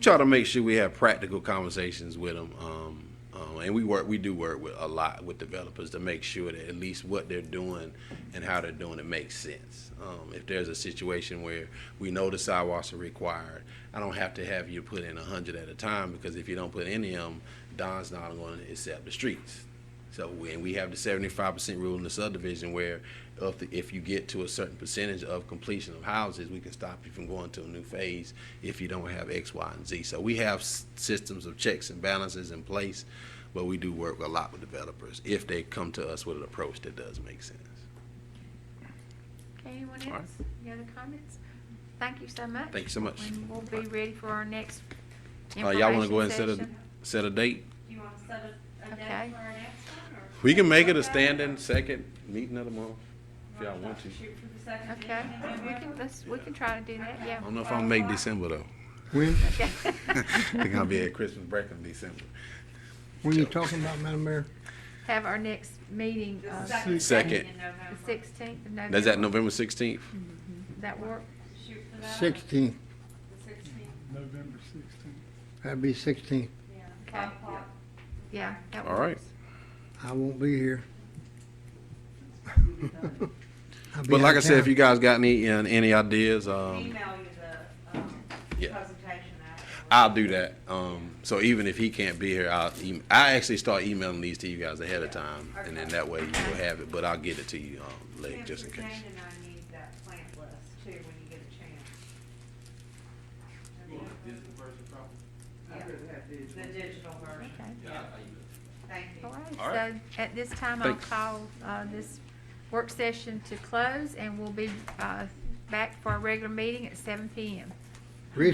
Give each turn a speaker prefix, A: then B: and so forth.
A: try to make sure we have practical conversations with them. Um, um, and we work, we do work with a lot with developers to make sure that at least what they're doing and how they're doing it makes sense. Um, if there's a situation where we know the sidewalks are required, I don't have to have you put in a hundred at a time because if you don't put any of them, Don's not going to accept the streets. So when we have the seventy-five percent rule in the subdivision where if, the- if you get to a certain percentage of completion of houses, we can stop you from going to a new phase if you don't have X, Y, and Z. So we have s- systems of checks and balances in place, but we do work a lot with developers if they come to us with an approach that does make sense.
B: Okay, anyone
A: All right.
B: else? Any other comments? Thank you so much.
A: Thank you so much.
B: And we'll be ready for our next
A: Uh, y'all wanna go ahead and set a,
B: information session.
A: set a date?
C: You want to set a, a
B: Okay.
C: date for our next one? or-
A: We can make it a standing second meeting of the month if y'all want to.
C: Shoot for the second meeting
B: Okay,
C: in
B: we
C: November?
B: can, let's, we can try to do that, yeah.
A: I don't know if I'm gonna make December though.
D: When,
B: Okay.
A: I think I'll be at Christmas break in December.
D: when you're talking about, Madam Mayor,
B: Have our next meeting,
C: The
B: uh,
C: second.
A: Second.
C: meeting in
B: the
C: November.
B: sixteenth of November.
A: That's at November sixteenth?
B: That work?
C: Shoot for that.
D: sixteenth,
C: The sixteenth,
E: November sixteenth.
D: that'd be sixteenth.
C: yeah,
B: Okay.
C: five o'clock.
B: Yeah. that
A: All right.
B: works.
D: I won't be here. I'll be
A: But
D: out
A: like I
D: of
A: said, if
D: town.
A: you guys got any, uh, any ideas, um,
C: Email you the, um,
A: Yeah.
C: presentation afterwards.
A: I'll do that. Um, so even if he can't be here, I'll, em- I actually start emailing these to you guys ahead of time. And then that way you will have it, but I'll get it to you, um, later,
C: And
A: just in
C: Suzanne
A: case.
C: and I need that plant list too, when you get a chance. Yeah, the digital version,
B: Okay.
C: thank you.
B: All
A: All
B: right,
A: right.
B: so at this time, I'll
A: Thanks.
B: call uh, this work session to close, and we'll be uh, back for our regular meeting at seven PM.